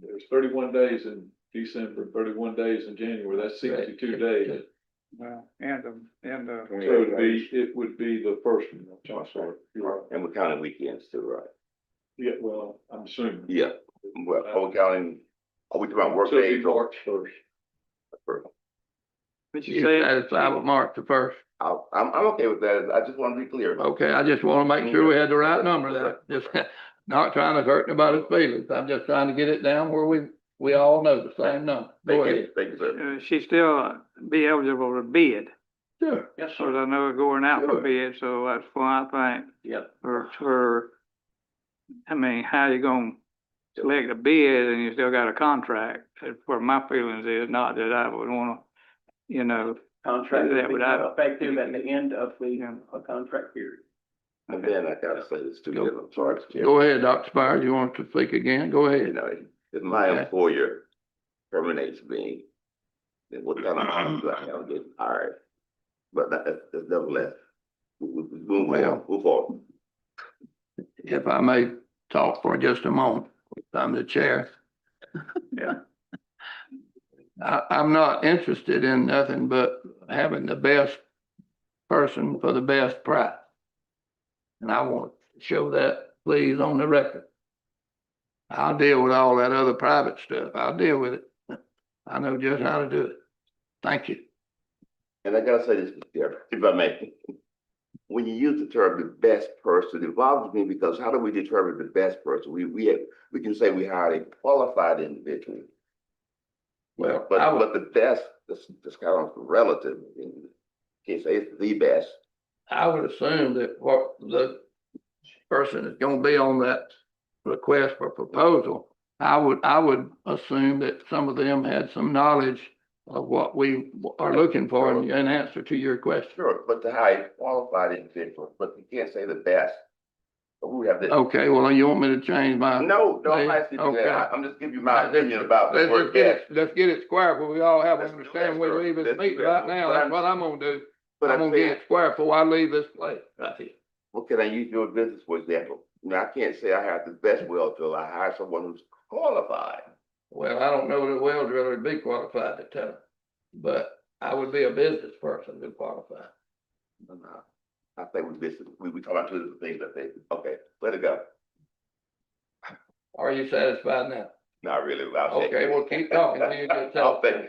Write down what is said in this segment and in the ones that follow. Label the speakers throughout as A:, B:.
A: there's thirty-one days in December, thirty-one days in January, that's
B: Right.
A: sixty-two days.
C: Well, and, um, and, uh,
A: So it'd be, it would be the first one, I'm sorry. You're right.
D: And we're counting weekends too, right?
A: Yeah, well, I'm assuming.
D: Yeah, well, are we counting, are we talking about work
A: So it'd be
D: days or?
A: March first.
C: but you
B: You
C: say,
B: satisfied with March the first.
D: I- I'm, I'm okay with that. I just want to be clear.
B: Okay, I just want to make sure we had the right number there. Just not trying to hurt anybody's feelings. I'm just trying to get it down where we, we all know the same number. Oh, Go
D: Thank
B: ahead.
D: you, thank you, sir.
C: uh, she still uh, be eligible to bid,
B: Sure.
A: Yes,
C: so I know going out for
B: Sure.
C: bid, so that's why I think.
B: Yep.
C: For, for, I mean, how you gonna select a bid and you still got a contract? That's where my feelings is, not that I would wanna, you know,
E: Contract
C: That
E: will
C: would
E: be
C: have-
E: effective at the end of the,
C: Yeah.
E: uh, contract period.
D: And then I gotta say this too,
B: Go.
D: I'm sorry, Mr. Chairman.
B: Go ahead, Dr. Spires. You want to speak again? Go
D: You
B: ahead.
D: know, if my
B: Okay.
D: employer terminates me, then what kind of options do I have to get hired? But that, that- that's nevertheless, we, we, we move on,
B: Well-
D: move on.
B: If I may talk for just a moment, I'm the chair.
C: Yeah.
B: I, I'm not interested in nothing but having the best person for the best price. And I want to show that, please, on the record. I'll deal with all that other private stuff. I'll deal with it. I know just how to do it. Thank you.
D: And I gotta say this, Mr. Chairman, if I may. When you use the term the best person, it bothers me because how do we determine the best person? We, we have, we can say we hired a qualified individual.
B: Well,
D: But,
B: I would-
D: but the best, this, this kind of relative, in case it's the best,
B: I would assume that what the person is gonna be on that request for proposal, I would, I would assume that some of them had some knowledge of what we are looking for in, in answer to your question.
D: sure, but to hire a qualified individual, but you can't say the best. But we have this, no,
B: Okay, well, you want me to change my?
D: no, I'm
B: Yeah,
D: not saying that. I-
B: Oh, okay.
D: I'm just giving you my opinion about the
B: Let's
D: word
B: just get
D: best.
B: it, let's get it square, but we all have
D: Let's
B: an
D: do that,
B: understanding we
D: sir.
B: leave this
D: Let's do
B: meeting
D: that.
B: right now,
D: But
B: that's
D: I'm-
B: what I'm gonna do.
D: But
B: I'm
D: I'm
B: gonna get
D: saying,
B: it square before I leave this place. Right here.
D: well, can I use your business for example? Now, I can't say I hired the best well driller, I hired someone who's qualified.
B: Well, I don't know that a well driller would be qualified to tell, but I would be a business person to qualify.
D: And, uh, I think we missed, we, we talking about two different things, I think, okay, let it go,
B: Are you satisfied now?
D: not really, but I'll say.
B: Okay, well, keep talking. You just tell.
D: I'll think.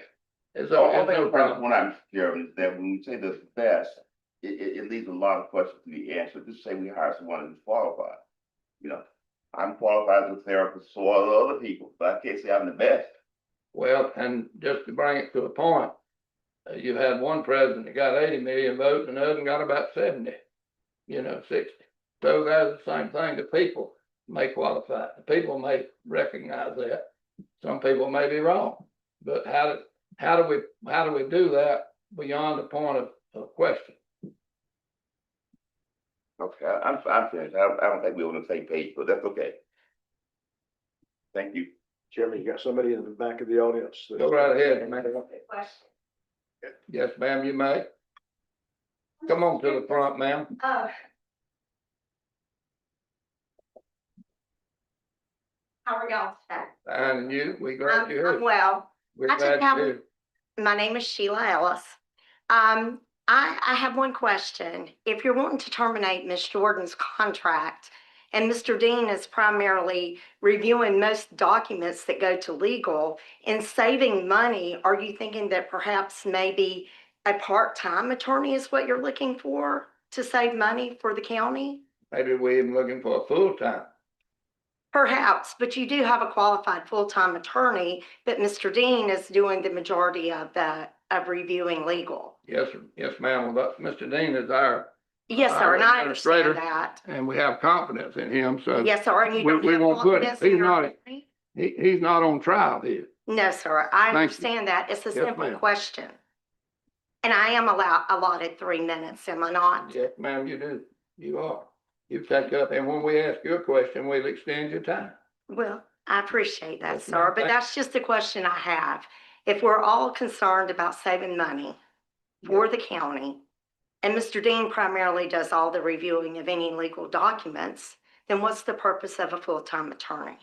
B: It's
D: So
B: all,
D: I
B: it's no
D: think
B: problem.
D: what I'm hearing is that when we say the best, it, it, it leaves a lot of questions to be answered. Just say we hire someone who's qualified. You know, I'm qualified as a therapist, so are other people, but I can't say I'm the best.
B: Well, and just to bring it to a point, uh, you've had one president that got eighty million votes and the other one got about seventy, you know, sixty. So that's the same thing. The people may qualify. The people may recognize that. Some people may be wrong. But how do, how do we, how do we do that beyond the point of, of question?
D: Okay, I- I'm, I'm finished. I, I don't think we're on the same page, but that's okay. Thank you.
A: Chairman, you got somebody in the back of the audience.
B: Go right ahead, ma'am.
F: question.
B: Yes, ma'am, you may. Come on to the front, ma'am.
F: Oh. How are y'all today?
B: And you, we glad
F: I'm-
B: you're here.
F: Um, I'm well.
B: We're
F: I just
B: glad
F: have-
B: you're here.
F: My name is Sheila Ellis. Um, I, I have one question. If you're wanting to terminate Ms. Jordan's contract, and Mr. Dean is primarily reviewing most documents that go to legal and saving money, are you thinking that perhaps maybe a part-time attorney is what you're looking for to save money for the county?
B: Maybe we even looking for a full-time.
F: Perhaps, but you do have a qualified full-time attorney, but Mr. Dean is doing the majority of the, of reviewing legal.
B: Yes, yes, ma'am. Well, that's- Mr. Dean is our,
F: Yes,
B: Our
F: sir, and I
B: administrator.
F: understand that.
B: and we have confidence in him, so
F: Yes, sir, and you
B: Uh, We-
F: don't
B: we
F: have
B: won't put it.
F: confidence in
B: He's
F: your
B: not-
F: attorney?
B: he, he's not on trial here.
F: No, sir, I
B: Thank you.
F: understand that. It's a
B: Yes,
F: simple
B: ma'am.
F: question. And I am allowed, allotted three minutes, am I not?
B: Yes, ma'am, you do. You are. You've taken up, and when we ask you a question, we'll extend your time.
F: Well, I appreciate that,
B: Yes, ma'am.
F: sir, but
B: Thank-
F: that's just a question I have. If we're all concerned about saving money for the county, and Mr. Dean primarily does all the reviewing of any legal documents, then what's the purpose of a full-time attorney?